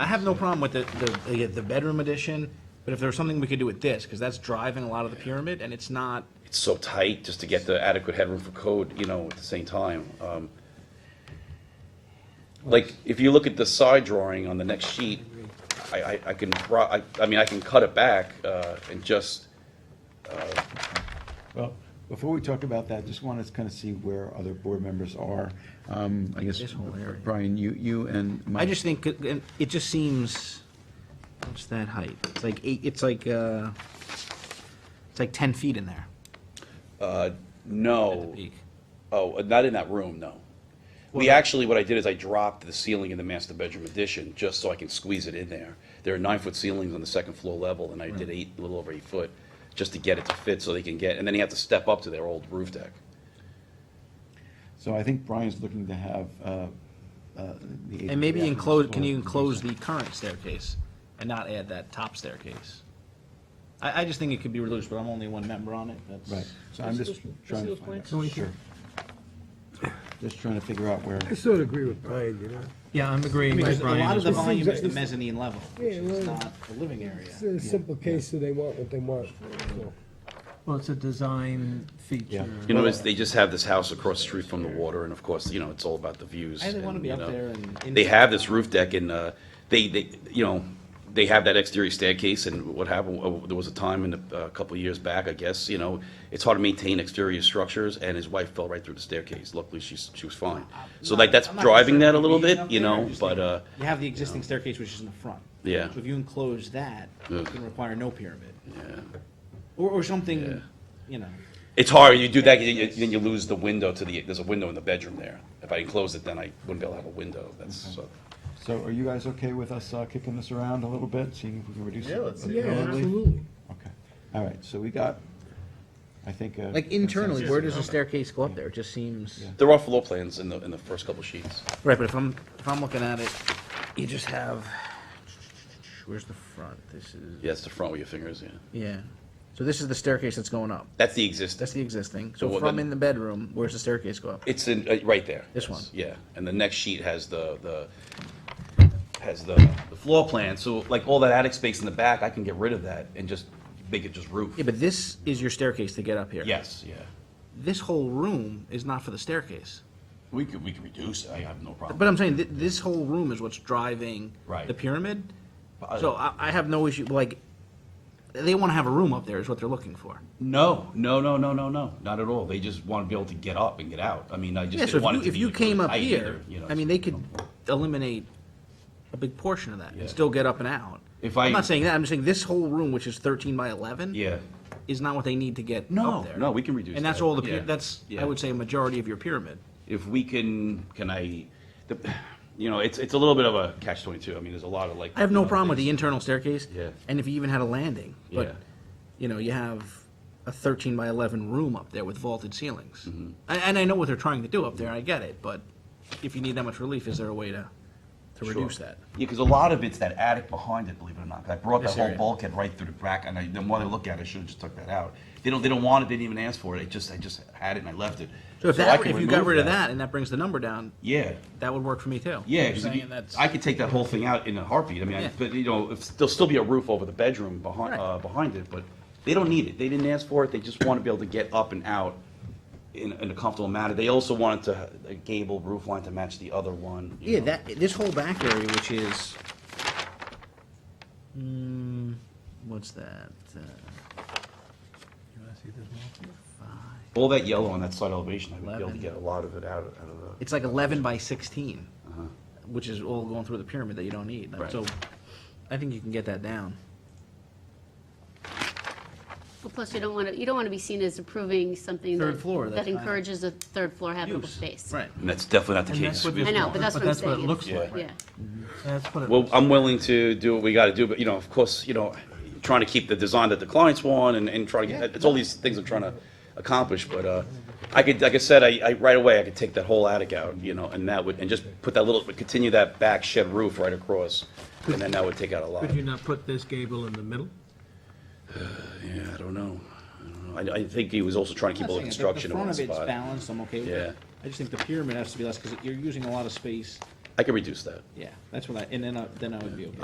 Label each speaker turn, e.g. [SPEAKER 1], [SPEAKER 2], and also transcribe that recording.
[SPEAKER 1] I have no problem with the, the, the- the bedroom addition, but if there was something we could do with this, because that's driving a lot of the pyramid, and it's not,
[SPEAKER 2] It's so tight just to get the adequate headroom for code, you know, at the same time. Um, Like, if you look at the side drawing on the next sheet, I, I, I can, bro- I, I mean, I can cut it back, uh, and just,
[SPEAKER 3] Well, before we talk about that, just wanted to kind of see where other board members are. Um, I guess,
[SPEAKER 1] This whole area.
[SPEAKER 3] Brian, you, you and Mike.
[SPEAKER 1] I just think, it- it it just seems, what's that height? It's like eight, it's like, uh, it's like ten feet in there
[SPEAKER 2] uh,
[SPEAKER 1] at the
[SPEAKER 2] no.
[SPEAKER 1] peak.
[SPEAKER 2] Oh, uh, not in that room, no. We actually, what I did is I dropped the ceiling in the master bedroom addition, just so I can squeeze it in there. There are nine-foot ceilings on the second floor level, and I
[SPEAKER 1] Hmm.
[SPEAKER 2] did eight, a little over eight foot, just to get it to fit, so they can get, and then you have to step up to their old roof deck.
[SPEAKER 3] So I think Brian's looking to have, uh, uh, the.
[SPEAKER 1] And maybe
[SPEAKER 3] the-
[SPEAKER 1] enclose, can you enclose the current staircase and not add that top staircase? I, I just think it could be reduced, but I'm only one member on it, that's.
[SPEAKER 3] Right, so I'm just
[SPEAKER 4] Procedural-
[SPEAKER 3] trying to
[SPEAKER 4] procedural
[SPEAKER 3] find out.
[SPEAKER 4] points?
[SPEAKER 3] Sure. Just trying to figure out where,
[SPEAKER 5] I sort of agree with Brian, you know?
[SPEAKER 6] Yeah, I'm agreeing
[SPEAKER 1] Because
[SPEAKER 6] with
[SPEAKER 1] a lot
[SPEAKER 6] Brian
[SPEAKER 1] of
[SPEAKER 6] as
[SPEAKER 1] the
[SPEAKER 6] well.
[SPEAKER 1] volume is the
[SPEAKER 5] It's-
[SPEAKER 1] mezzanine level, which
[SPEAKER 5] Yeah,
[SPEAKER 1] is
[SPEAKER 5] well,
[SPEAKER 1] not a living area.
[SPEAKER 5] It's a simple case, so they want what they want. so.
[SPEAKER 6] Well, it's a design
[SPEAKER 3] Yeah.
[SPEAKER 6] feature.
[SPEAKER 2] You know, it's, they just have this house across the street from the water, and of course, you know, it's all about the views.
[SPEAKER 1] I didn't wanna
[SPEAKER 2] and,
[SPEAKER 1] be
[SPEAKER 2] you
[SPEAKER 1] up
[SPEAKER 2] know,
[SPEAKER 1] there and-
[SPEAKER 2] They have this roof deck and, uh, they, they, you know, they have that exterior staircase and what happened, uh, there was a time in the, a couple of years back, I guess, you know, it's hard to maintain exterior structures and his wife fell right through the staircase. Luckily, she's, she was fine. So like, that's
[SPEAKER 1] I'm not
[SPEAKER 2] driving
[SPEAKER 1] concerned
[SPEAKER 2] that a
[SPEAKER 1] with
[SPEAKER 2] little
[SPEAKER 1] being
[SPEAKER 2] bit,
[SPEAKER 1] up
[SPEAKER 2] you
[SPEAKER 1] there, I
[SPEAKER 2] know,
[SPEAKER 1] just
[SPEAKER 2] but,
[SPEAKER 1] think
[SPEAKER 2] uh,
[SPEAKER 1] You have the existing staircase, which is in the front.
[SPEAKER 2] Yeah.
[SPEAKER 1] So if you enclose that,
[SPEAKER 2] Yeah.
[SPEAKER 1] you can require no pyramid,
[SPEAKER 2] yeah.
[SPEAKER 1] or, or
[SPEAKER 2] Yeah.
[SPEAKER 1] something, you know.
[SPEAKER 2] It's hard, you do that, you- you- then you lose the window to the, there's a window in the bedroom there. If I enclose it, then I wouldn't be able to have a window, that's, so.
[SPEAKER 3] so are you guys okay with us uh, kicking this around a little bit, seeing if we can reduce it?
[SPEAKER 7] Yeah, let's see.
[SPEAKER 5] Yeah,
[SPEAKER 3] permanently?
[SPEAKER 5] absolutely.
[SPEAKER 3] Okay, all right, so we got, I think. uh,
[SPEAKER 1] Like internally,
[SPEAKER 3] consensus.
[SPEAKER 1] where does the staircase go up there? It just seems.
[SPEAKER 3] Yeah.
[SPEAKER 2] There are floor plans in the, in the first couple sheets.
[SPEAKER 1] Right, but if I'm, if I'm looking at it, you just have, where's the front? This is,
[SPEAKER 2] Yeah, it's the front with your fingers, yeah.
[SPEAKER 1] yeah. So this is the staircase that's going up.
[SPEAKER 2] That's the
[SPEAKER 1] That's
[SPEAKER 2] existing.
[SPEAKER 1] the existing.
[SPEAKER 2] So
[SPEAKER 1] So
[SPEAKER 2] what
[SPEAKER 1] from
[SPEAKER 2] then-
[SPEAKER 1] in the bedroom, where's the staircase go up?
[SPEAKER 2] It's in, uh, right there.
[SPEAKER 1] This
[SPEAKER 2] Yes,
[SPEAKER 1] one.
[SPEAKER 2] Yeah, and the next sheet has the, the, has the, the floor plan, so like all that attic space in the back, I can get rid of that and just make it just roof.
[SPEAKER 1] Yeah, but this is your staircase to get up here.
[SPEAKER 2] Yes, yeah.
[SPEAKER 1] This whole room is not for the staircase.
[SPEAKER 2] We could, we could reduce, it. I have no problem.
[SPEAKER 1] But I'm saying, th- this whole room is what's driving
[SPEAKER 2] Right.
[SPEAKER 1] the pyramid. So I, I have no issue, like, they want to have a room up there is what they're looking for.
[SPEAKER 2] No, no, no, no, no, no, not at all. They just want to be able to get up and get out. I mean, I just
[SPEAKER 1] Yeah, so
[SPEAKER 2] didn't want it
[SPEAKER 1] if
[SPEAKER 2] to
[SPEAKER 1] you, if
[SPEAKER 2] be
[SPEAKER 1] you
[SPEAKER 2] really
[SPEAKER 1] came up
[SPEAKER 2] tight
[SPEAKER 1] here,
[SPEAKER 2] either, you know,
[SPEAKER 1] I mean, they could eliminate a big portion of that
[SPEAKER 2] Yeah.
[SPEAKER 1] and still get up and out.
[SPEAKER 2] If I-
[SPEAKER 1] I'm not saying that, I'm just saying this whole room, which is thirteen by eleven.
[SPEAKER 2] Yeah.
[SPEAKER 1] Is not what they need to get
[SPEAKER 2] No,
[SPEAKER 1] up there.
[SPEAKER 2] no, we can reduce
[SPEAKER 1] And that's
[SPEAKER 2] that.
[SPEAKER 1] all the,
[SPEAKER 2] Yeah.
[SPEAKER 1] pyra- that's,
[SPEAKER 2] Yeah.
[SPEAKER 1] I would say, a majority of your pyramid.
[SPEAKER 2] if we can, can I, the, you know, it's, it's a little bit of a catch twenty-two. I mean, there's a lot of like.
[SPEAKER 1] I have no
[SPEAKER 2] you know,
[SPEAKER 1] problem with the
[SPEAKER 2] things-
[SPEAKER 1] internal staircase.
[SPEAKER 2] Yeah.
[SPEAKER 1] And if you even had a landing,
[SPEAKER 2] Yeah.
[SPEAKER 1] but, you know, you have a thirteen by eleven room up there with vaulted ceilings.
[SPEAKER 2] Mm-hmm.
[SPEAKER 1] And, and I know what they're trying to do up there, I get it, but if you need that much relief, is there a way to, to
[SPEAKER 2] Sure.
[SPEAKER 1] reduce that?
[SPEAKER 2] Yeah, because a lot of it's that attic behind it, believe it or not. 'Cause I brought that
[SPEAKER 1] This
[SPEAKER 2] whole
[SPEAKER 1] area.
[SPEAKER 2] bulkhead right through the back, and I, the more they look at it, I should have just took that out. They don't, they don't want it, they didn't even ask for it. I just, I just had it and I left it.
[SPEAKER 1] So if
[SPEAKER 2] I
[SPEAKER 1] that,
[SPEAKER 2] can
[SPEAKER 1] if you got
[SPEAKER 2] remove
[SPEAKER 1] rid of that and that brings the number down,
[SPEAKER 2] Yeah,
[SPEAKER 1] that would work for me too.
[SPEAKER 2] yeah,
[SPEAKER 1] You're
[SPEAKER 2] 'cause if
[SPEAKER 1] saying
[SPEAKER 2] you-
[SPEAKER 1] that's-
[SPEAKER 2] I could take that whole thing out in a heartbeat. I mean, I-
[SPEAKER 1] Yeah.
[SPEAKER 2] but, you know, if- there'll still be a roof over the bedroom behind,
[SPEAKER 1] Right.
[SPEAKER 2] uh, behind it, but they don't need it. They didn't ask for it. They just want to be able to get up and out in, in a comfortable manner. They also wanted to, ha- a gable roof line to match the other one. you
[SPEAKER 1] Yeah,
[SPEAKER 2] know.
[SPEAKER 1] that, this whole back area, which is, mm, what's that? Uh,
[SPEAKER 2] All that yellow on that side elevation, I would be able to
[SPEAKER 1] Eleven.
[SPEAKER 2] get a lot of it out of, out of the.
[SPEAKER 1] It's like eleven by sixteen, which is all going through the pyramid that you don't need.
[SPEAKER 2] Uh-huh. Right.
[SPEAKER 1] So, I think you can get that down.
[SPEAKER 8] Well, plus you don't want to, you don't want to be seen as approving something
[SPEAKER 1] Third
[SPEAKER 8] that-
[SPEAKER 1] floor, that's
[SPEAKER 8] that
[SPEAKER 1] kind of-
[SPEAKER 8] encourages a third floor habitable
[SPEAKER 1] Use.
[SPEAKER 8] space.
[SPEAKER 1] Right.
[SPEAKER 2] And that's definitely not the
[SPEAKER 6] And that's
[SPEAKER 2] case.
[SPEAKER 6] what this
[SPEAKER 8] I know,
[SPEAKER 6] looks-
[SPEAKER 8] but that's what I'm
[SPEAKER 6] But that's what it
[SPEAKER 8] saying.
[SPEAKER 6] looks
[SPEAKER 2] Yeah.
[SPEAKER 6] like.
[SPEAKER 8] Yeah.
[SPEAKER 6] That's what it
[SPEAKER 2] Well,
[SPEAKER 6] looks like.
[SPEAKER 2] I'm willing to do what we gotta do, but, you know, of course, you know, trying to keep the design that the clients want and, and try to get, it's all these things I'm trying to accomplish, but, uh, I could, like I said, I, I, right away, I could take that whole attic out, you know, and that would, and just put that little, continue that back shed roof right across, and then that would take out a lot.
[SPEAKER 5] Could you not put this gable in the middle?
[SPEAKER 2] Yeah, I don't know. I don't know. I, I think he was also trying to keep all the
[SPEAKER 1] I'm not saying it.
[SPEAKER 2] construction in one
[SPEAKER 1] The front of it's
[SPEAKER 2] spot.
[SPEAKER 1] balanced, I'm okay with
[SPEAKER 2] Yeah.
[SPEAKER 1] it. I just think the pyramid has to be less, because you're using a lot of space
[SPEAKER 2] I could reduce that.
[SPEAKER 1] Yeah, that's what I, and then I, then I would be okay.